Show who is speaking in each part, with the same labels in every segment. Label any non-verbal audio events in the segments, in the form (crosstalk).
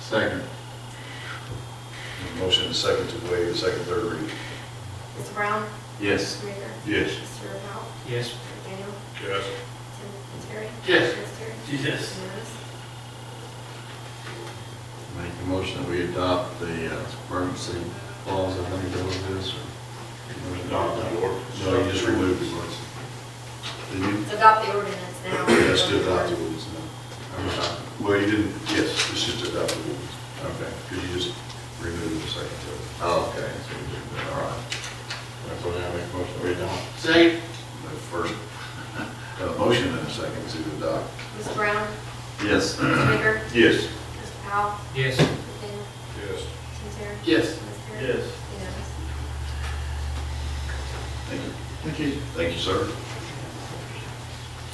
Speaker 1: Second.
Speaker 2: Motion and second to waive the second, third reading.
Speaker 3: Mr. Brown?
Speaker 1: Yes.
Speaker 3: Mr. Baker?
Speaker 2: Yes.
Speaker 3: Mr. Powell?
Speaker 4: Yes.
Speaker 3: Mr. Daniel?
Speaker 2: Yes.
Speaker 3: Tim Terry?
Speaker 4: Yes.
Speaker 3: Mr. Terry?
Speaker 4: Yes.
Speaker 3: Unanimous?
Speaker 1: Make a motion that we adopt the uh, emergency clause, I think that was this. or-
Speaker 2: Adopt the ordinance.
Speaker 1: No, you just removed the words. Did you?
Speaker 3: To adopt the ordinance
Speaker 2: (clears throat)
Speaker 3: now.
Speaker 2: Yes, to adopt the ordinance
Speaker 1: I was not.
Speaker 2: now. Well, you didn't, yes, it's just to adopt the ordinance. Okay. Could you just remove the second, third?
Speaker 1: Oh, okay, so we did that, all right. That's what I make a motion that we adopt.
Speaker 4: Second?
Speaker 2: The first, (laughs) uh, motion and a second to adopt.
Speaker 3: Mr. Brown?
Speaker 1: Yes.
Speaker 3: Mr. Baker?
Speaker 2: Yes.
Speaker 3: Mr. Powell?
Speaker 4: Yes.
Speaker 3: Mr. Daniel?
Speaker 2: Yes.
Speaker 3: Tim Terry?
Speaker 4: Yes.
Speaker 3: Mr. Terry?
Speaker 4: Yes.
Speaker 3: Unanimous?
Speaker 2: Thank you. Thank you. Thank you, sir.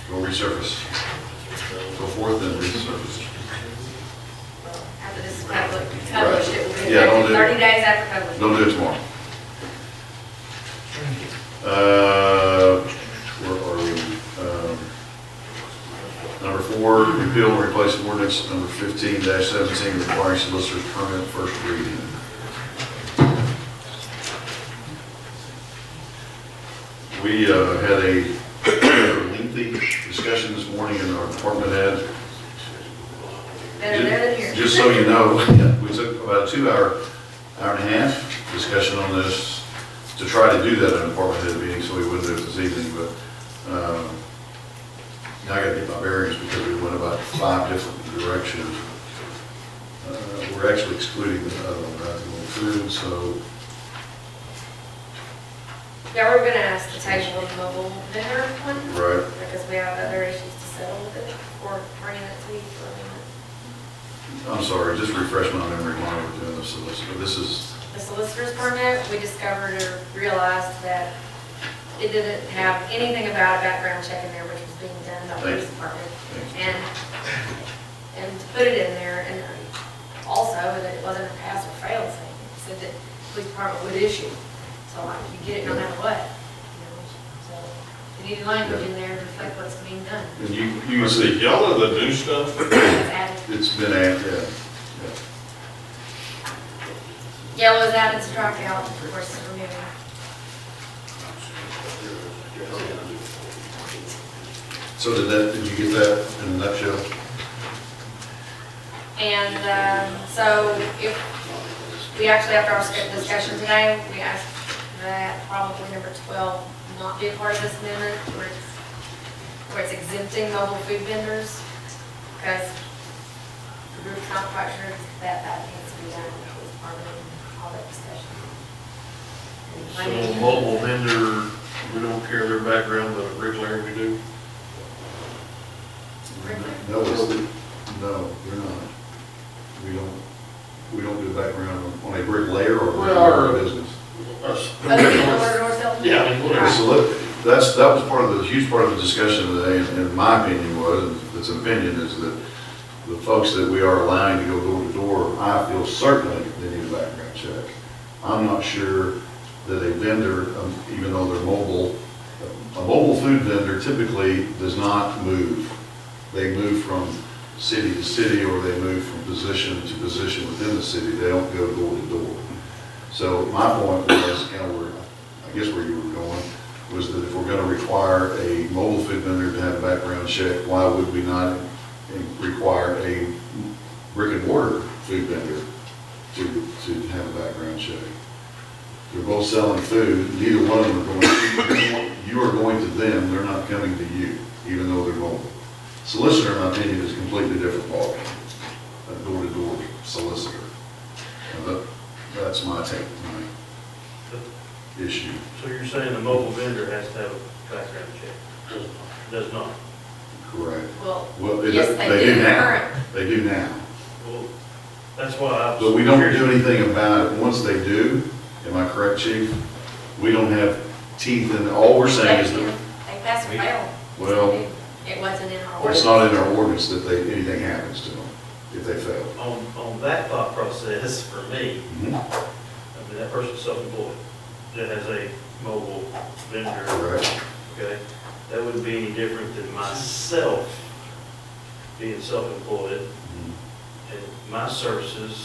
Speaker 2: Go resurface. Go forth and resurface.
Speaker 3: After this is public, published, it will be
Speaker 2: Yeah, don't
Speaker 3: effective
Speaker 2: do-
Speaker 3: thirty days after publication.
Speaker 2: Don't do it tomorrow. Uh, Where are we? Um, Number four, repeal and replace ordinance number fifteen seventeen requiring solicitor's permit first reading. We uh, had a (clears throat) lengthy discussion this morning in our department head.
Speaker 3: Better there than here.
Speaker 2: Just so you know, (laughs) we took about a two-hour, hour and a half discussion on this to try to do that in a department head meeting, so we wouldn't do it this evening, but, um, now I gotta get my bearings because we went about five different directions. Uh, We're actually excluding the other one, right, the food, so,
Speaker 3: Yeah, we're gonna ask the table of mobile vendor one,
Speaker 2: right,
Speaker 3: because we have other issues to settle with it, or bringing it to you for a minute.
Speaker 2: I'm sorry, just refresh my memory while we're doing this, So this- this is,
Speaker 3: The solicitor's permit, we discovered or realized that it didn't have anything about a background check in there, which was being done by the police department. And, and to put it in there, and also that it wasn't a pass or fail thing, it said that the police department would issue. So like, you get it no matter what, you know, so we needed language in there to reflect what's being done. (coughs)
Speaker 2: and you, you
Speaker 5: You
Speaker 2: can
Speaker 5: see,
Speaker 2: see,
Speaker 5: y'all are the new stuff.
Speaker 3: It's added.
Speaker 2: it's been, add- yeah, yeah.
Speaker 3: Yellow is added to strike out, of course, is removed.
Speaker 2: So did that, did you get that in a nutshell?
Speaker 3: And um, so if, we actually, after our script discussion today, we asked that probably number 12 not be a part of this amendment, where it's, where it's exempting mobile food vendors, because the group's not quite sure that that needs to be done, that was part of all that discussion.
Speaker 5: So mobile vendor, we don't care their background, but regular we do.
Speaker 2: No, it's- no, we're not. We don't, we don't do background on- on a brick layer or
Speaker 5: We are.
Speaker 2: a business.
Speaker 5: Us.
Speaker 3: Other than the Lord North Hilton?
Speaker 5: Yeah, I mean, what
Speaker 3: Right.
Speaker 5: is-
Speaker 2: So look, that's, that was part of the, huge part of the discussion today, and and my opinion was, and it's an opinion, is that the folks that we are allowing to go door to door, I feel certainly they need a background check. I'm not sure that a vendor, um, even though they're mobile, a mobile food vendor typically does not move. They move from city to city, or they move from position to position within the city, they don't go door to door. So my point was, kind of where, I guess where you were going, was that if we're gonna require a mobile food vendor to have a background check, why would we not in- require a brick and mortar food vendor to, to have a background check? They're both selling food, neither one of them are going, you are going to them, they're not coming to you, even though they're mobile. Solicitor, in my opinion, is a completely different ballgame, a door-to-door solicitor. Now, that- That's my take, my issue.
Speaker 6: So you're saying the mobile vendor has to have a background check? Does not.
Speaker 2: Correct.
Speaker 3: Well,
Speaker 2: Well, they
Speaker 3: yes,
Speaker 2: they
Speaker 3: they
Speaker 2: do
Speaker 3: do
Speaker 2: now.
Speaker 3: current.
Speaker 2: They do now.
Speaker 6: Well, that's why I was.
Speaker 2: But we don't do anything about it. Once they do, am I correct, chief? We don't have teeth in, all we're saying is that,
Speaker 3: They passed or failed.
Speaker 2: well,
Speaker 3: It wasn't in our
Speaker 2: it's
Speaker 3: ordinance.
Speaker 2: not in our ordinance that they, anything happens to them if they fail.
Speaker 6: On, on that thought process, for me,
Speaker 2: Mhm.
Speaker 6: I mean, that person's self-employed, that has a mobile vendor,
Speaker 2: Correct.
Speaker 6: okay? That wouldn't
Speaker 2: Mm-hmm.
Speaker 6: be any different than myself being self-employed and my services